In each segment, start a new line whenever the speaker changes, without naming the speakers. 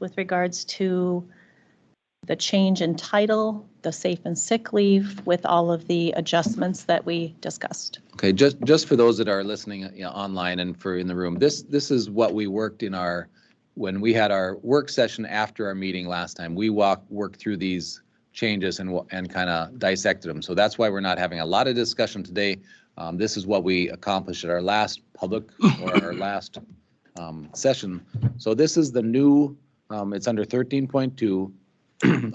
with regards to the change in title, the safe and sick leave, with all of the adjustments that we discussed.
Okay, just, just for those that are listening you know, online and for in the room, this, this is what we worked in our, when we had our work session after our meeting last time, we walk, worked through these changes and, wa- and kind of dissected them. So that's why we're not having a lot of discussion today. Um, This is what we accomplished at our last public or our last um, session. So this is the new, um, it's under 13.2,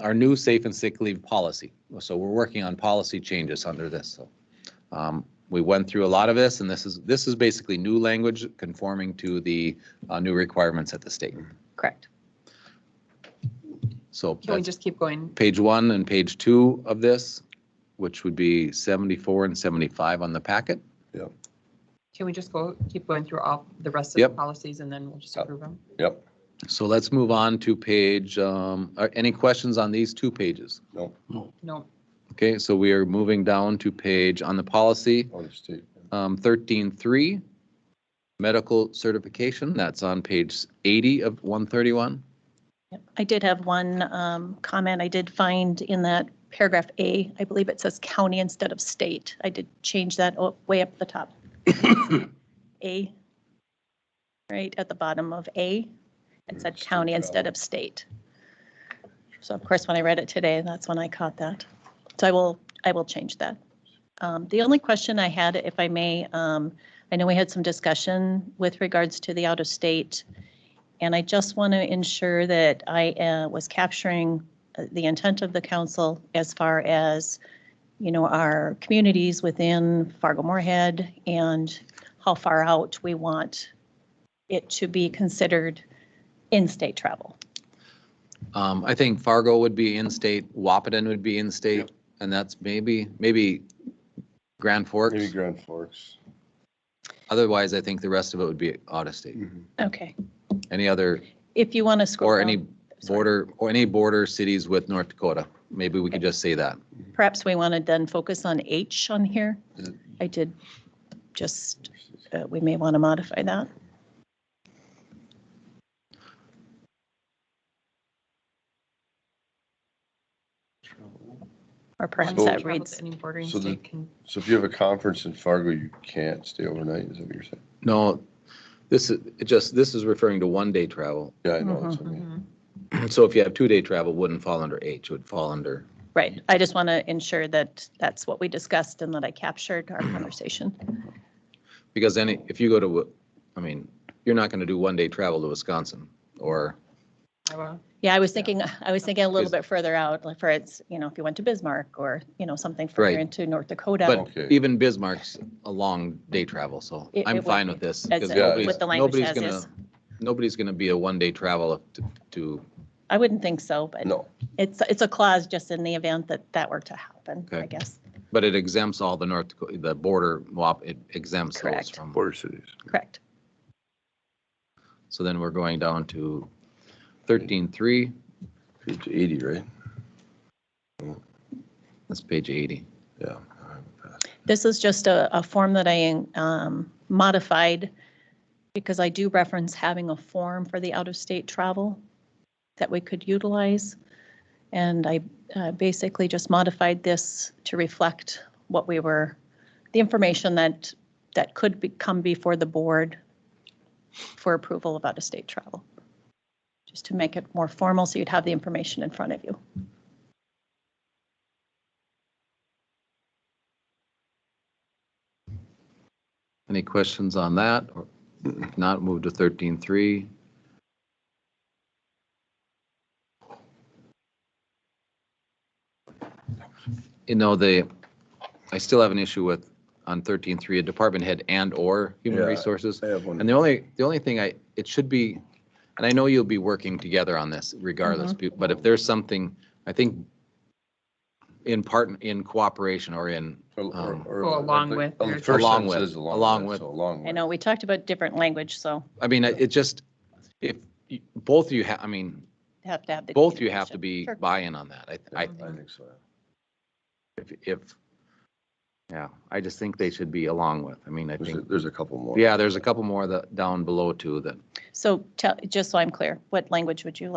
our new safe and sick leave policy. So we're working on policy changes under this, so. Um, We went through a lot of this, and this is, this is basically new language conforming to the uh, new requirements at the state.
Correct.
So
Can we
that's
just keep going?
page one and page two of this, which would be 74 and 75 on the packet.
Can we just go, keep going through all the rest of the
Yep.
policies and then we'll just approve them?
Yep,
So let's move on to page, um, are any questions on these two pages?
no,
No,
Okay, so we are moving down to page on the policy,
on the state.
um, 13.3, medical certification, that's on page 80 of 131.
Yep. I did have one um, comment I did find in that paragraph A. I believe it says county instead of state. I did change that o- way up the top. A, right at the bottom of A, it said county instead of state. So of course, when I read it today, that's when I caught that. So I will, I will change that. Um, The only question I had, if I may, um, I know we had some discussion with regards to the out-of-state and I just want to ensure that I uh, was capturing uh, the intent of the council as far as, you know, our communities within Fargo-Moorhead and how far out we want it to be considered in-state travel.
Um, I think Fargo would be in-state, Wapaton would be in-state, and that's maybe, maybe Grand
Maybe
Forks.
Grand Forks.
Otherwise, I think the rest of it would be out of state.
Mm-hmm.
Okay.
Any other,
If you want to scroll
or
down,
any border, or any border cities with North Dakota. Maybe we could just say that.
perhaps we want to then focus on H on here. I did just, uh, we may want to modify that. Or perhaps
Anyone
that
travel
reads,
to Any bordering
so the-
state can,
So if you have a conference in Fargo, you can't stay overnight, is that what you're saying?
No, this is, it just, this is referring to one-day travel.
Yeah, I know, that's what I mean.
Mhm.
So if you have two-day travel, it wouldn't fall under H, it would fall under,
right, I just want to ensure that that's what we discussed and that I captured
Mm.
our conversation.
because any, if you go to, Wi- I mean, you're not going to do one-day travel to Wisconsin or
Iowa,
Yeah, I was thinking, I was thinking a little
Is-
bit further out, like for it's, you know, if you went to Bismarck or, you know, something further
Right.
into North Dakota.
But
Okay.
even Bismarck's a long day travel, so
It- it
I'm
would
fine
be,
with this.
as
'cause
it-
nobody's-
with the language
nobody's
as
gonna-
is.
Nobody's going to be a one-day travel to- to,
I wouldn't think so, but
No,
it's, it's a clause just in the event that that were to happen, I
Okay.
guess.
but it exempts all the North, Daco- the border, WAP, it exempts those
Correct.
from.
border cities.
Correct.
So then we're going down to 13.3,
Page eighty, right?
that's page 80.
Yeah.
This is just a, a form that I um, modified because I do reference having a form for the out-of-state travel that we could utilize. And I uh, basically just modified this to reflect what we were, the information that, that could be, come before the board for approval of out-of-state travel. Just to make it more formal, so you'd have the information in front of you.
Any questions on that? Or If not, move to 13.3. You know, the, I still have an issue with, on 13.3, a department head and/or human
Yeah.
resources.
I have one.
And the only, the only thing I, it should be, and I know you'll be working together on this regardless, bu- but if there's something, I think in part, in cooperation or in,
Or- or-
um,
or-
Go along
but
with
on the
your-
first
Along
sentence
with,
it is
along with.
so Along with.
I know, we talked about different language, so
I mean, it just, if, you- both of you have, I mean,
have to have the.
both you have to
communication.
be
Sure.
buy-in on that. I, I,
I think so.
if, if- yeah, I just think they should be along with. I mean, I
There's, a-
think,
there's a couple more.
yeah, there's a couple more that, down below too, that
So tell, just so I'm clear, what language would you like?